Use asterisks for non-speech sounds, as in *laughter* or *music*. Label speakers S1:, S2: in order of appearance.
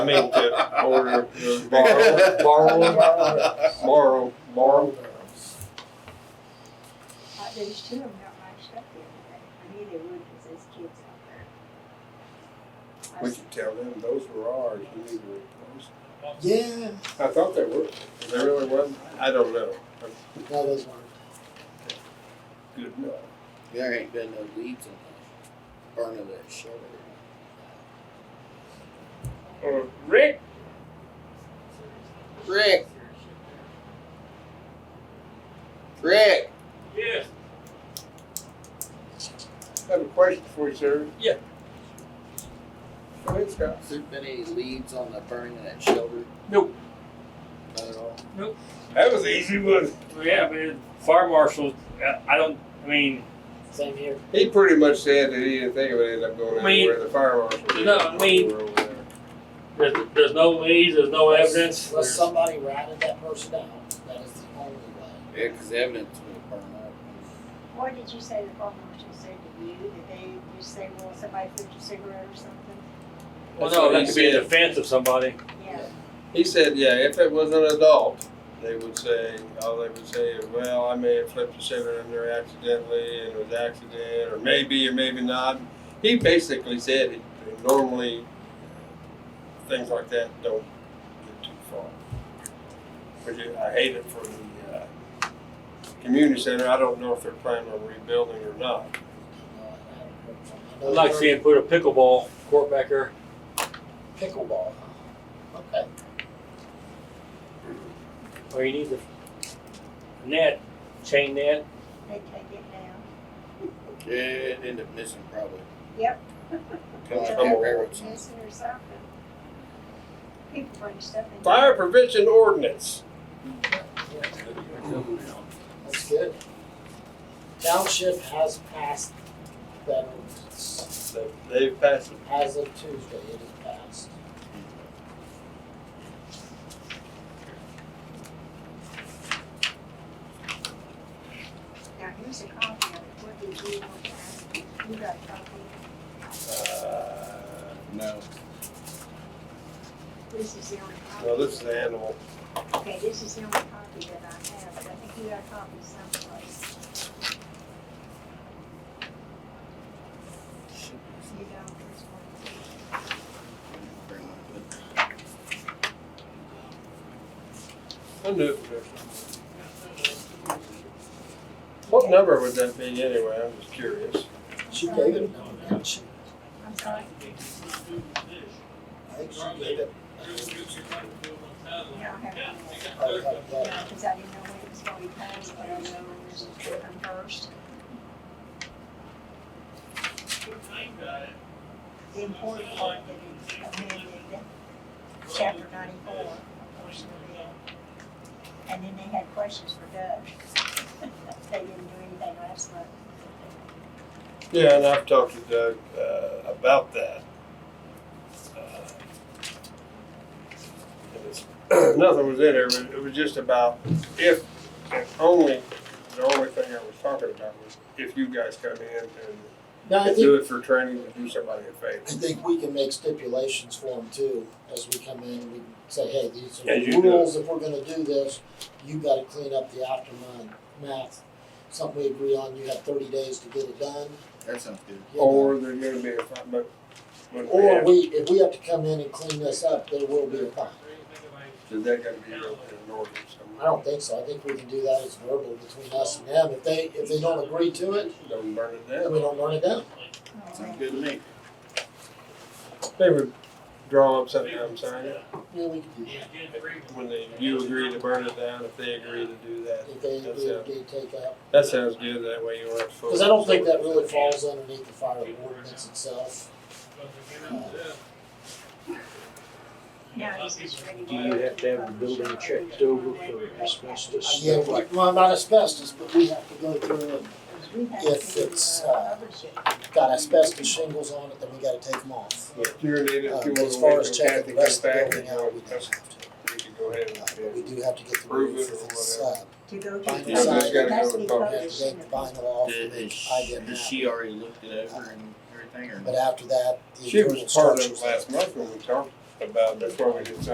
S1: I mean, to order, uh, borrow, borrow, borrow, borrow.
S2: Uh, there's two of them got matched up the other day. I knew they would because there's kids out there. I
S3: We
S2: was-
S3: should tell them those were ours, you need to replace them.
S4: Yeah,
S1: I thought they were, they really wasn't, I don't know,
S4: no, those weren't.
S1: good enough.
S5: There ain't been no leaves in the burn of that shoulder.
S1: Uh, Rick,
S5: Rick! Rick!
S6: Yes,
S1: I have a question for you, sir.
S6: Yeah.
S1: Go ahead, Scott.
S5: Has there been any leaves on the burn of that shoulder?
S6: Nope.
S5: Not at all?
S1: That was easy, wasn't
S6: well, yeah, but it- fire marshal, I- I don't, I mean,
S4: Same here.
S1: it? He pretty much said that he didn't think it would end up going
S6: I mean-
S1: anywhere, the fire marshal.
S6: No, I mean-
S1: We're over there.
S6: there's, there's no leads, there's no Oh, evidence.
S4: Unless
S6: there's-
S4: somebody ratted that person out, that is the only way.
S5: Yeah, 'cause the evidence would burn up.
S2: What did you say the fire marshal said to you? Did they, you say, well, somebody flipped a cigarette or something?
S6: Well,
S1: That's what
S6: no,
S1: he
S6: that could be a
S1: said.
S6: defense of somebody.
S2: Yeah.
S1: He said, yeah, if it was an adult, they would say, all they would say is, well, I may have flipped a cigarette in there accidentally and it was accident, or maybe or maybe not. He basically said it, normally uh, things like that don't get too far. Which is- I hate it for the uh, community center. I don't know if they're planning on rebuilding or not.
S4: No, I haven't heard from them. I
S6: I'd
S4: know
S6: like to
S4: they're
S6: see him put a pickleball court back there.
S4: Pickleball, huh? Okay.
S6: Or Oh, you need the net, chain net.
S2: They take it down.
S5: Yeah, it ended up missing probably.
S2: Yep.
S5: Probably
S2: Yeah.
S5: got railroad signs.
S2: Missing or something. People bring stuff in.
S1: Fire prevention ordinance.
S4: That's good. Township has passed that ordinance.
S1: They- They've passed it.
S4: As of Tuesday, it is passed.
S2: Now, here's a copy of it. What did you want to ask? You got a copy?
S1: Uh,
S5: No.
S2: This is the only copy.
S1: no, this is the animal.
S2: Okay, this is the only copy that I have, but I think you got a copy someplace. You don't, there's one.
S5: Burn up, but-
S1: I knew it was there. What number would that be anyway? I'm just curious.
S4: She gave it now, didn't she?
S2: I'm sorry,
S4: I think she gave it.
S2: yeah, I have it.
S4: Probably like that.
S2: Because I didn't know when it was going to be passed, but I know it was from first. The important part that is amended, chapter ninety-four, of course, of it. And then they had questions for Doug. *laughs* They didn't do anything last month.
S1: Yeah, and I've talked to Doug uh, about that. Uh, and it's- *clears throat* Nothing was in there, but it was just about if, if only, the only thing I was talking about was if you guys come in
S4: No,
S1: and
S4: I think,
S1: do it for training to do somebody a favor.
S4: I think we can make stipulations for them too, as we come in, we can say, hey, these are
S1: As
S4: the
S1: you do.
S4: rules, if we're gonna do this, you gotta clean up the aftermath. Something we agree on, you have thirty days to get it done.
S5: That sounds good.
S4: you know.
S1: Or there's gonna be a, fi- but. but we
S4: Or
S1: have-
S4: we, if we have to come in and clean this up, there will be a fine.
S1: Is that gonna be wrote in an ordinance
S4: I
S1: somewhere?
S4: don't think so, I think we can do that as verbal between us and them, if they, if they don't agree to it,
S1: Don't burn it
S4: then
S1: down.
S4: we don't run it down.
S5: Sounds good to me.
S1: They would draw up something, I'm sorry,
S4: Yeah, we can do that.
S1: when they, you agree to burn it down, if they agree to do that.
S4: If they,
S1: That's
S4: if
S1: it.
S4: they take out
S1: That sounds good, that way you won't. have to-
S4: Because I don't think that really falls underneath the fire ordinance itself.
S2: Now, this is ready.
S7: Do you have to have the building checked over for asbestos?
S4: Yeah, we- well, not asbestos, but we have to go through and If it's, uh, got asbestos shingles on it, then we gotta take them off.
S1: But you're needed, if you
S4: Um,
S1: want
S4: As
S1: to
S4: far
S1: wait
S4: as
S1: till Kathy
S4: checking the
S1: comes
S4: rest of the
S1: back,
S4: building
S1: and
S4: out,
S1: you
S4: we
S1: can,
S4: don't have to.
S1: you can go ahead
S4: Uh,
S1: and.
S4: But we do have to get the
S1: Prove it
S4: roof
S1: or
S4: if it's, uh,
S1: whatever.
S2: To go to.
S5: Yeah,
S4: vinyl
S2: the-
S1: there's gotta
S2: It has
S1: go
S2: be
S1: to the-
S4: we have to
S2: published in
S4: take the
S2: the-
S4: vinyl off to
S5: Did,
S4: make
S5: has
S4: I
S5: she,
S4: did
S5: has
S4: that.
S5: she already looked it over and everything or?
S4: But after that, the
S1: She was
S4: internal
S1: part of
S4: structures-
S1: it last month when we talked, about before we decide